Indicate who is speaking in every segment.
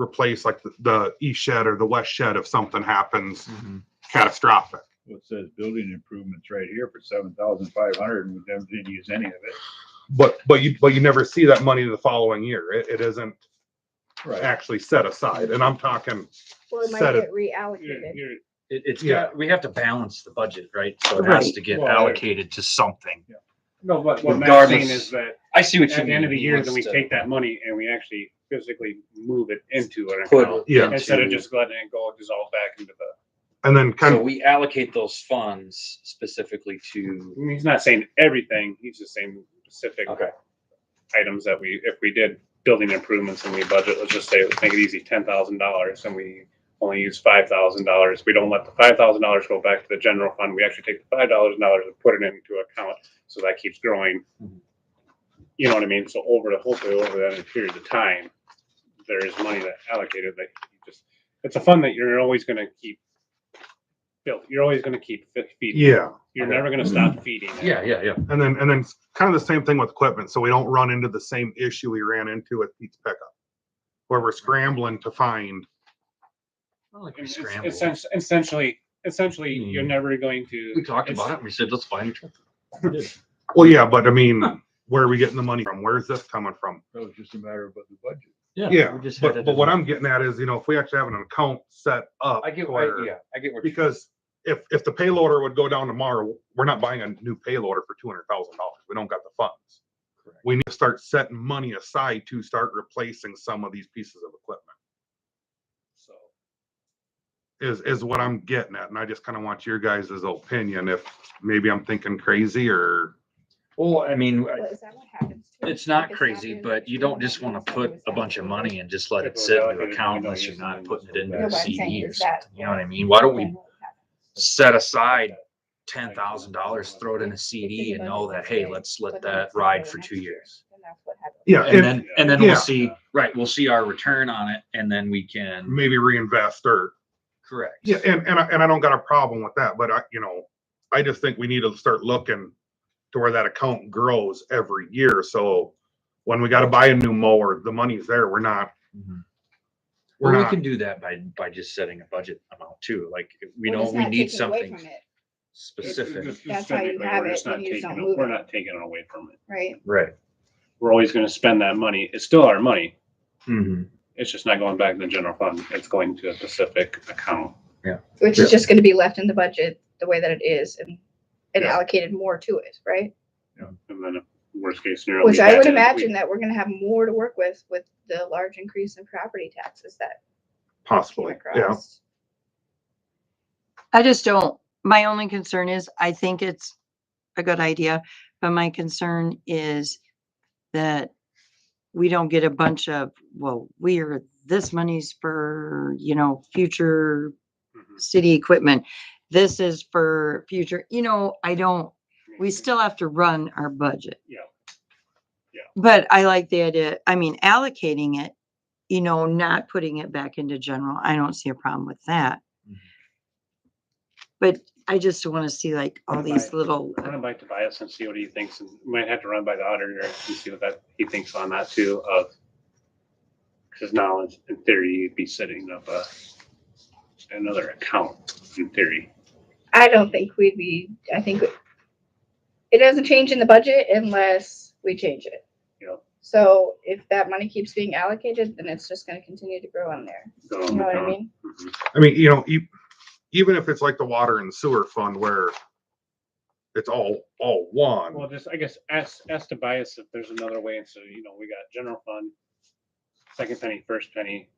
Speaker 1: replace like the, the east shed or the west shed if something happens
Speaker 2: Mm-hmm.
Speaker 1: catastrophic.
Speaker 3: Well, it says building improvements right here for seven thousand five hundred and we never didn't use any of it.
Speaker 1: But, but you, but you never see that money the following year. It, it isn't actually set aside. And I'm talking,
Speaker 2: Well, it might
Speaker 1: Set it.
Speaker 2: get reallocated.
Speaker 4: It, it's
Speaker 1: Yeah.
Speaker 4: got, we have to balance the budget, right? So it has
Speaker 5: Right.
Speaker 4: to get
Speaker 6: Well,
Speaker 4: allocated to something.
Speaker 6: No, but what Matt's
Speaker 4: Regardless.
Speaker 6: saying is that
Speaker 4: I see what you mean.
Speaker 6: at the end of the
Speaker 4: He
Speaker 6: year,
Speaker 4: wants
Speaker 6: then we
Speaker 4: to
Speaker 6: take that money and we actually physically move it into an
Speaker 4: put
Speaker 6: account.
Speaker 1: Yeah.
Speaker 4: into-
Speaker 6: Instead of just letting it go dissolve back into the,
Speaker 1: and then kind
Speaker 4: So
Speaker 1: of,
Speaker 4: we allocate those funds specifically to,
Speaker 6: I mean, he's not saying everything, he's just saying specific
Speaker 4: okay,
Speaker 6: items that we, if we did building improvements and we budget, let's just say, let's make it easy, ten thousand dollars and we only use five thousand dollars. We don't let the five thousand dollars go back to the general fund. We actually take the five dollars dollars and put it into account, so that keeps growing.
Speaker 4: Mhm.
Speaker 6: You know what I mean? So over the, hopefully over that period of time, there is money that allocated that you just, it's a fund that you're always gonna keep built. You're always gonna keep fe- feeding.
Speaker 1: yeah.
Speaker 6: You're never gonna stop feeding. it.
Speaker 4: yeah, yeah, yeah.
Speaker 1: And then, and then it's kind of the same thing with equipment. So we don't run into the same issue we ran into with Pete's pickup. Where we're scrambling to find,
Speaker 4: Not like we
Speaker 6: It's-
Speaker 4: scrambled.
Speaker 6: it's essen- Essentially, essentially, you're
Speaker 4: Hmm.
Speaker 6: never going to.
Speaker 4: We talked
Speaker 6: it's-
Speaker 4: about it, and we said, let's buy a new truck.
Speaker 1: well, yeah, but I mean, where are we getting the money from? Where's this coming from?
Speaker 3: So it's just a matter of the budget.
Speaker 1: Yeah,
Speaker 4: we just had
Speaker 1: But,
Speaker 4: that
Speaker 1: but what
Speaker 4: done.
Speaker 1: I'm getting at is, you know, if we actually have an account set up.
Speaker 4: I get, I,
Speaker 1: where-
Speaker 4: yeah, I get what you're.
Speaker 1: Because if, if the payloader would go down tomorrow, we're not buying a new payloader for two hundred thousand dollars. We don't got the funds.
Speaker 4: Correct.
Speaker 1: We need to start setting money aside to start replacing some of these pieces of equipment.
Speaker 6: So,
Speaker 1: is is what I'm getting at, and I just kind of want your guys' opinion if maybe I'm thinking crazy or
Speaker 4: Well, I mean,
Speaker 2: Well, uh, is that what happens to it?
Speaker 4: it's not
Speaker 2: If
Speaker 4: crazy,
Speaker 2: in-
Speaker 4: but you don't just want to put a bunch of money and just let it sit in your account unless you're not putting it into
Speaker 2: No,
Speaker 4: a
Speaker 2: what I'm saying
Speaker 4: CD or
Speaker 2: is that-
Speaker 4: something. You know what I mean? Why don't we
Speaker 2: Then what happens?
Speaker 4: set aside ten thousand dollars, throw it in a CD and know that, hey, let's let that ride for two years.
Speaker 2: Then that's what happens.
Speaker 1: yeah,
Speaker 4: And
Speaker 1: and
Speaker 4: then, and then we'll
Speaker 1: Yeah.
Speaker 4: see, right, we'll see our return on it and then we can,
Speaker 1: maybe reinvest or
Speaker 4: correct.
Speaker 1: yeah, and and I, and I don't got a problem with that, but I you know I just think we need to start looking to where that account grows every year. So when we got to buy a new mower, the money's there. We're not
Speaker 4: Mhm.
Speaker 1: we're
Speaker 4: Or we
Speaker 1: not
Speaker 4: can do that by, by just setting a budget amount too, like, we
Speaker 2: We're
Speaker 4: know
Speaker 2: just
Speaker 4: we
Speaker 2: not
Speaker 4: need
Speaker 2: taking away
Speaker 4: something
Speaker 2: from it,
Speaker 4: specific,
Speaker 6: Just- just
Speaker 2: That's how you
Speaker 6: specifically,
Speaker 2: have
Speaker 6: we're
Speaker 2: it,
Speaker 6: just
Speaker 2: then
Speaker 6: not
Speaker 2: you just
Speaker 6: taking
Speaker 2: don't
Speaker 6: it-
Speaker 2: move
Speaker 6: We're
Speaker 2: it.
Speaker 6: not taking it away from it.
Speaker 2: Right?
Speaker 4: right?
Speaker 6: We're always gonna spend that money. It's still our money.
Speaker 4: Mhm.
Speaker 6: It's just not going back to the general fund. It's going to a specific account.
Speaker 2: Which is just gonna be left in the budget the way that it is and, and
Speaker 6: Yeah.
Speaker 2: allocated more to it, right?
Speaker 6: And then if worst case scenario.
Speaker 2: Which
Speaker 6: we
Speaker 2: I
Speaker 6: had
Speaker 2: would
Speaker 6: it, we-
Speaker 2: imagine that we're gonna have more to work with, with the large increase in property taxes that came
Speaker 1: possibly yeah.
Speaker 2: across.
Speaker 5: I just don't, my only concern is, I think it's a good idea, but my concern is that we don't get a bunch of, well, we are, this money's for, you know, future
Speaker 6: Mhm.
Speaker 5: city equipment. This is for future, you know, I don't,
Speaker 6: mm-hmm.
Speaker 5: we still have to run our budget.
Speaker 6: Yeah. Yeah.
Speaker 5: But I like the idea, I mean, allocating it, you know, not putting it back into general. I don't see a problem with that.
Speaker 6: Mm-hmm.
Speaker 4: Mhm.
Speaker 5: But I just want to see like all
Speaker 6: Right.
Speaker 5: these little, uh,
Speaker 6: Run it by Tobias and see what he thinks. And we might have to run by the auditor and see what that, he thinks on that too of. Cause now it's- in theory, you'd be setting up a, another account in theory.
Speaker 2: I don't think we'd be, I think it doesn't change in the budget unless we change it.
Speaker 6: Yeah.
Speaker 2: So if that money keeps being allocated, then it's just gonna continue to grow on there.
Speaker 6: go
Speaker 2: You know
Speaker 6: on the
Speaker 2: what I
Speaker 6: account.
Speaker 2: mean?
Speaker 6: Mhm.
Speaker 1: I mean, you know, e- even if it's like the water and sewer fund where it's all all one.
Speaker 6: Well, just, I guess, ask, ask Tobias if there's another way, and so, you know, we got general fund, second penny, first penny,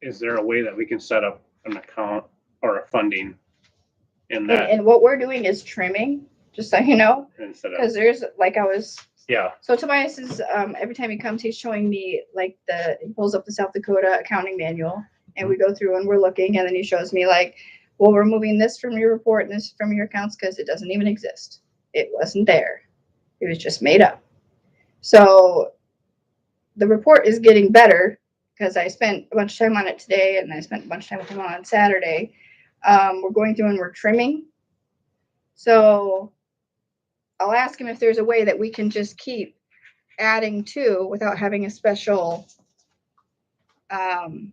Speaker 6: is there a way that we can set up an account or a funding in
Speaker 2: And,
Speaker 6: that
Speaker 2: and what we're doing is trimming, just so you know,
Speaker 6: instead of,
Speaker 2: because there's, like I was,
Speaker 6: yeah,
Speaker 2: so Tobias is, um, every time he comes, he's showing me like the, he pulls up the South Dakota accounting manual. And we go through and we're looking and then he shows me like, well, we're moving this from your report and this from your accounts because it doesn't even exist. It wasn't there. It was just made up. So the report is getting better because I spent a bunch of time on it today and I spent a bunch of time with him on Saturday. Um, we're going through and we're trimming. So I'll ask him if there's a way that we can just keep adding to without having a special um,